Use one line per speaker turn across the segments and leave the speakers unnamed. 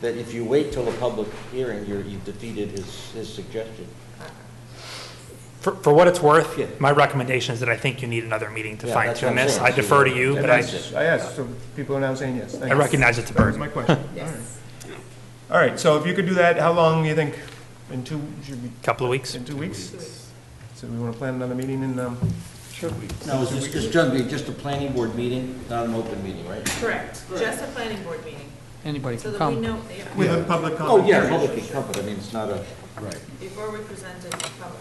that if you wait till a public hearing, you're, you've defeated his, his suggestion.
For, for what it's worth,
Yeah.
my recommendation is that I think you need another meeting to
Yeah,
fine
that's what
tune
I'm
this.
saying.
I defer to you,
Yeah,
but I,
that's it.
I asked, Oh, so people are now saying yes. Thank
I
you.
recognize it's a
That was
burden.
my question. All right. All right, so if you could do that, how long do you think? In two, should be,
Couple of weeks?
in two weeks? So we want to plan another meeting in, um,
No, it's just, it's gonna be just a planning board meeting, not an open meeting, right?
Correct, just a planning board meeting,
Anybody
so that we
can come.
know, yeah,
with a public comment?
Oh, yeah, public is public, I mean, it's not a,
before we present it to the public.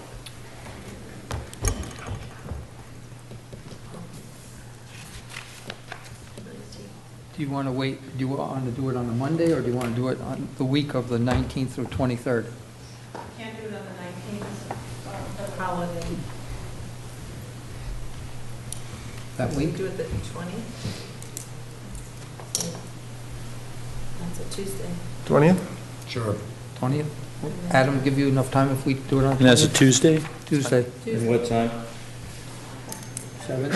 Do you want to wait, do you want to do it on a Monday, or do you want to do it on the week of the 19th through 23rd?
Can't do it on the nineteenth, uh, the holiday.
That
We
week?
do it the twentieth? That's a Tuesday.
Twentieth?
20th? Adam, give you enough time if we do it on
And that's a
20th?
Tuesday?
Tuesday?
in
Tuesday,
what time?
Seven?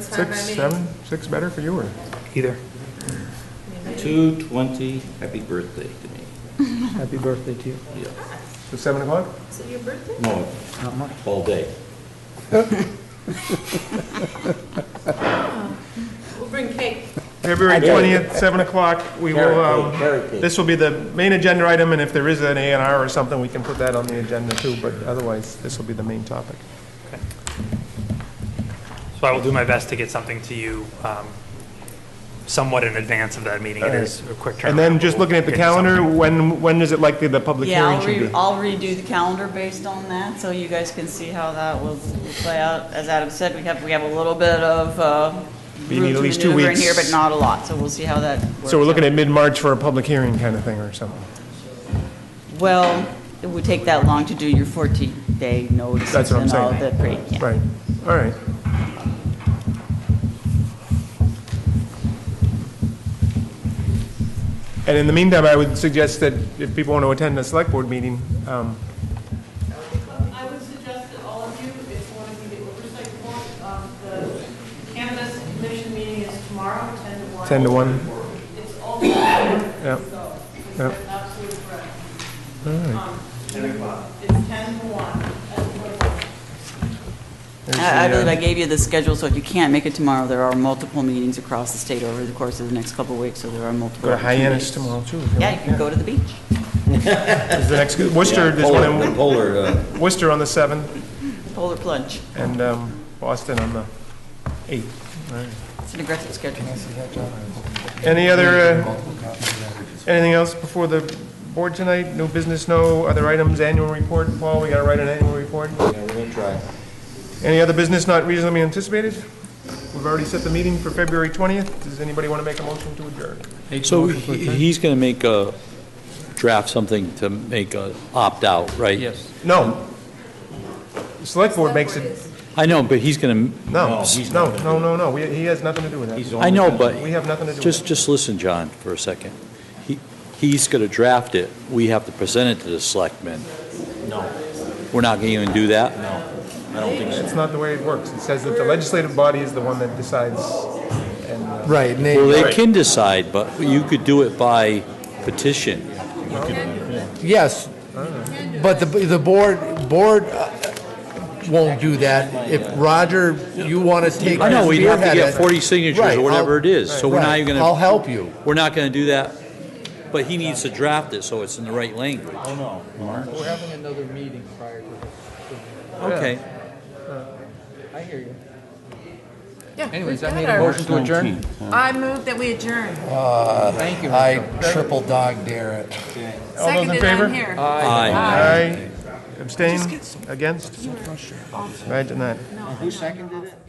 seven's fine by me.
Six, seven, six better for you, or?
Either.
Two twenty, happy birthday to me.
Happy birthday to you.
Yeah,
So seven o'clock?
Is it your birthday?
no,
Not much.
all day.
We'll bring cake.
February twentieth, seven o'clock, we will,
Carrot cake,
um,
carrot cake.
this will be the main agenda item, and if there is an A and R or something, we can put that on the agenda too, but otherwise, this will be the main topic.
So I will do my best to get something to you um, somewhat in advance of that meeting. It
All right.
is a quick turnaround.
And then just looking at the
Get you something.
calendar, when, when is it likely the public
Yeah,
hearing
I'll
should
re-
be?
I'll redo the calendar based on that, so you guys can see how that will will play out. As Adam said, we have, we have a little bit of uh,
You need
room
at
to
least two
maneuver in here,
weeks.
but not a lot, so we'll see how that works
So we're looking
out.
at mid-March for a public hearing kind of thing or something.
Well, it would take that long to do your 14-day
That's
notices
what I'm
and all
saying.
of that, great, yeah.
Right, all right. And in the meantime, I would suggest that if people want to attend a select board meeting, um,
I would suggest that all of you, if you want to be the oversight board, um, the cannabis commission meeting is tomorrow, 10 to 1.
10 to 1.
It's all, so
Yeah,
it's
Yep.
absolutely correct. Um, It's 10 to 1. at the-
there's
I I
the, uh,
believe I gave you the schedule, so if you can't make it tomorrow, there are multiple meetings across the state over the course of the next couple of weeks, so there are multiple
Go to Hyannis
opportunities.
tomorrow too. if you
Yeah,
want.
you can go to the beach.
There's the next, Worcester, there's one
Polar,
in
polar, uh,
Worcester on the 7th
Polar plunge.
and um, Boston on the 8th.
It's an aggressive schedule.
Any other, uh, anything else before the board tonight? No business, no other items, annual report? Paul, we got to write an annual report?
yeah, we're gonna try.
Any other business not reasonably anticipated? We've already set the meeting for February 20th. Does anybody want to make a motion to adjourn?
So he- he's going to make a, draft something to make a opt-out, right?
Yes.
No. The Select board makes it,
I know, but he's going to,
no,
No, he's not
no, no, no, no. We- He has nothing to do with that.
He's on
I know,
the-
but
We have nothing to do with
just,
it.
just listen, John, for a second. He, he's going to draft it. We have to present it to the selectmen.
No,
We're not going to even do that?
I don't think so.
It's not the way it works. It says that the legislative body is the one that decides. and, uh,
Right, and
Well, they can decide, but you could do it by petition.
Yes, but the, the board, board uh, won't do that. If Roger, you want to take.
I know, we'd have to
spearhead
get
it-
40 signatures
Right,
or
I'll-
whatever it is, so we're not
right,
even
I'll
going to,
help you.
we're not going to do that. But he needs to draft it so it's in the right language.
We're having another meeting prior to
Okay.
I hear you.
Yeah,
Anyways, I made a motion to adjourn.
I move that we adjourn.
Thank you.
I triple dog dare it.
All those in
Seconded, I'm
favor?
here.
Aye.
Aye. Abstain? Against? Right, denied.
Who seconded it?